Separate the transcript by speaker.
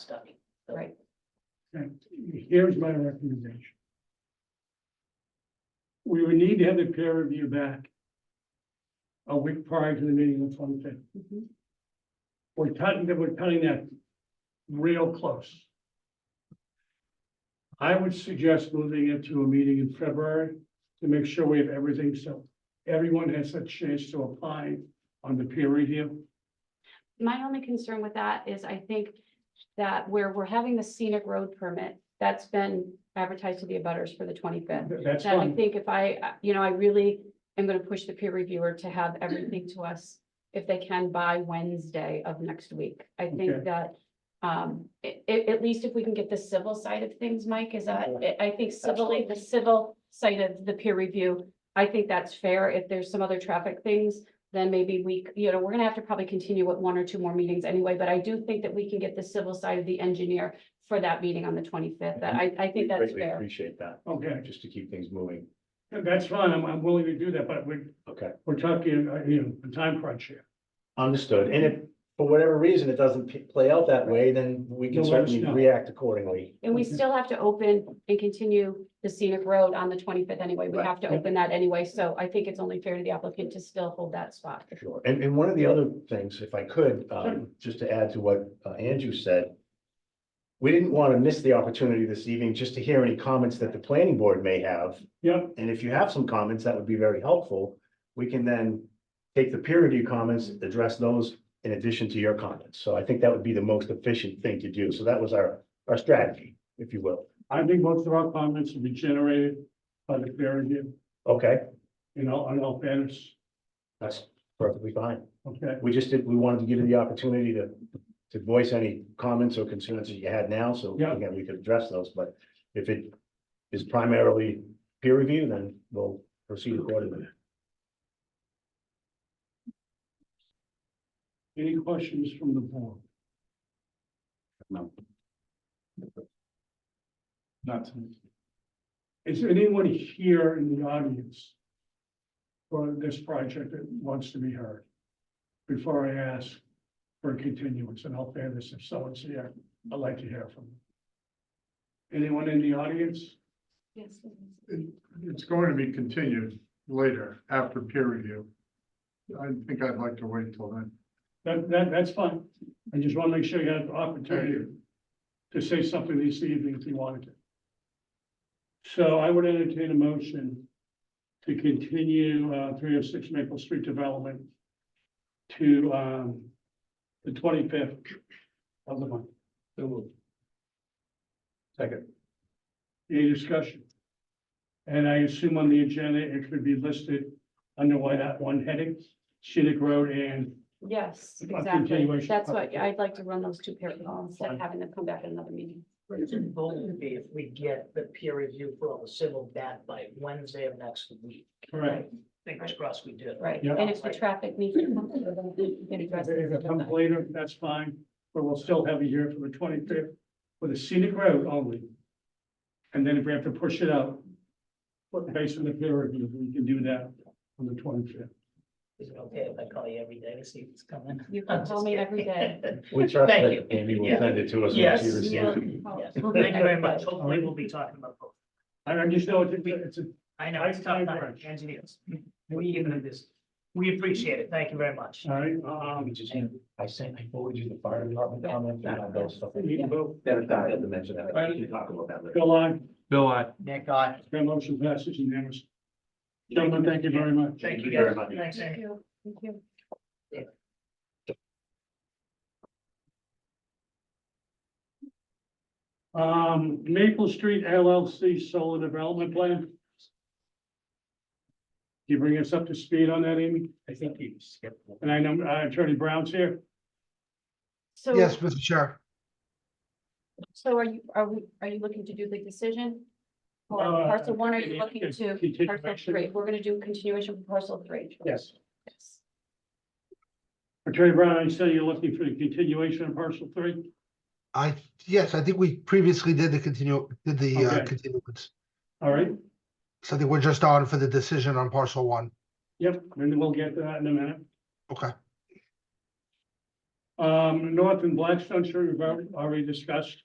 Speaker 1: here's my recommendation. We would need to have the peer review back. A week prior to the meeting on the twenty fifth.
Speaker 2: Mhm.
Speaker 1: We're cutting, we're cutting that real close. I would suggest moving it to a meeting in February to make sure we have everything, so everyone has a chance to apply on the peer review.
Speaker 2: My only concern with that is I think that where we're having the scenic road permit, that's been advertised to the abutters for the twenty-fifth.
Speaker 1: Th- That's
Speaker 2: And I
Speaker 1: fine.
Speaker 2: think if I, uh, you know, I really am gonna push the peer reviewer to have everything to us if they can by Wednesday of next week. I
Speaker 1: Okay.
Speaker 2: think that, um, i- i- at least if we can get the civil side of things, Mike, is that, I- I think civilly, the civil side of the peer review, I think that's fair. If there's some other traffic things, then maybe we, c- you know, we're gonna have to probably continue with one or two more meetings anyway, but I do think that we can get the civil side of the engineer for that meeting on the twenty-fifth. I,
Speaker 1: Mm-hmm.
Speaker 2: I think that's
Speaker 3: Greatly
Speaker 2: fair.
Speaker 3: appreciate that,
Speaker 1: Okay,
Speaker 3: just to keep things moving.
Speaker 1: that's fine. I'm, I'm willing to do that, but we're,
Speaker 3: Okay,
Speaker 1: we're talking, uh, you know, a time crunch here.
Speaker 3: understood. And if, for whatever reason, it doesn't p- play out that way, then we
Speaker 1: You'll
Speaker 3: can
Speaker 1: let us
Speaker 3: certainly
Speaker 1: know.
Speaker 3: react accordingly.
Speaker 2: And we
Speaker 1: Okay.
Speaker 2: still have to open and continue the scenic road on the twenty-fifth anyway. We
Speaker 3: Right.
Speaker 2: have to
Speaker 1: Yeah.
Speaker 2: open that anyway, so I think it's only fair to the applicant to still hold that spot.
Speaker 3: Sure. And, and one of the other things, if I could, um, just to add to what uh, Andrew said. We didn't want to miss the opportunity this evening just to hear any comments that the planning board may have.
Speaker 1: Yep.
Speaker 3: And if you have some comments, that would be very helpful. We can then take the peer review comments, address those in addition to your comments. So I think that would be the most efficient thing to do. So that was our, our strategy, if you will.
Speaker 1: I think most of our comments will be generated by the peer review,
Speaker 3: Okay,
Speaker 1: you know, on all fairness,
Speaker 3: that's perfectly fine.
Speaker 1: okay?
Speaker 3: We just did, we wanted to give you the opportunity to, to voice any comments or concerns that you had now. So
Speaker 1: Yeah.
Speaker 3: again, we could address those, but if it is primarily peer review, then we'll proceed accordingly.
Speaker 1: Any questions from the board?
Speaker 3: No.
Speaker 1: Not to. Is there anyone here in the audience for this project that wants to be heard? Before I ask for a continuance, and I'll fairness, if someone's here, I'd like to hear from them. Anyone in the audience?
Speaker 2: Yes.
Speaker 4: It's going to be continued later after peer review. I think I'd like to wait till then.
Speaker 1: That, that, that's fine. I just want to make sure you have the opportunity to say something this evening if you wanted to. So I would entertain a motion to continue, uh, three oh six Maple Street Development to, um, the twenty-fifth of the month. So moved.
Speaker 3: Second.
Speaker 1: Any discussion? And I assume on the agenda, it could be listed under why that one heading, scenic road and
Speaker 2: Yes,
Speaker 1: A
Speaker 2: exactly.
Speaker 1: continuation.
Speaker 2: That's what, I'd like to run those two parallel instead
Speaker 1: Fine.
Speaker 2: of having them come back at another meeting.
Speaker 5: It's going to be if we get the peer review for all the civil back by Wednesday of next week.
Speaker 1: correct.
Speaker 5: Fingers crossed we do.
Speaker 2: Right,
Speaker 1: Yeah.
Speaker 2: and if the traffic needs to come. we can address
Speaker 1: If it comes
Speaker 2: it.
Speaker 1: later, that's fine, but we'll still have a year for the twenty-fifth with a scenic road only. And then if we have to push it out, but based on the peer review, we can do that on the twenty-fifth.
Speaker 5: Is it okay if I call you every day to see what's coming?
Speaker 2: You can call me every day.
Speaker 3: We trust
Speaker 5: Thank
Speaker 3: that
Speaker 5: you.
Speaker 3: Amy will
Speaker 5: Yeah.
Speaker 3: send it to us. once
Speaker 5: Yes.
Speaker 3: you receive it.
Speaker 5: Yes. Thank you very much. Hopefully we'll be talking about both.
Speaker 1: I I just know it's, a- it's a,
Speaker 5: I know, it's tough time, engineers. We even do this. We appreciate it. Thank you very much.
Speaker 1: all right,
Speaker 3: Um,
Speaker 1: um,
Speaker 3: we just, I sent, I forwarded you the fire department
Speaker 2: Yeah.
Speaker 3: comments and all those stuff.
Speaker 1: we need to vote.
Speaker 3: That, that, I had to mention that, we can talk about that later.
Speaker 1: Bill, I,
Speaker 6: Bill, I.
Speaker 5: Thank God.
Speaker 1: that motion passes unanimously. Gentlemen, thank you very much.
Speaker 5: Thank you
Speaker 3: very
Speaker 5: guys.
Speaker 3: much.
Speaker 5: Thanks,
Speaker 2: Thank
Speaker 5: Amy.
Speaker 2: you. Thank you.
Speaker 1: Um, Maple Street LLC Solar Development Plan. Can you bring us up to speed on that, Amy? I think you skipped. And I know uh, Attorney Brown's here.
Speaker 2: So.
Speaker 7: Yes, Mr. Chair.
Speaker 2: So are you, are we, are you looking to do the decision? Or
Speaker 1: Uh,
Speaker 2: parcel one, are you
Speaker 1: continue-
Speaker 2: looking to parcel
Speaker 1: continuation.
Speaker 2: three? We're gonna do continuation for parcel three.
Speaker 1: Yes.
Speaker 2: Yes.
Speaker 1: Attorney Brown, I say you're looking for the continuation of parcel three?
Speaker 7: I, yes, I think we previously did the continue, did the uh,
Speaker 1: Okay.
Speaker 7: continuance.
Speaker 1: All right,
Speaker 7: So I think we're just on for the decision on parcel one.
Speaker 1: yep, and we'll get to that in a minute.
Speaker 7: Okay.
Speaker 1: Um, North and Blackstone, sure, we've already- already discussed.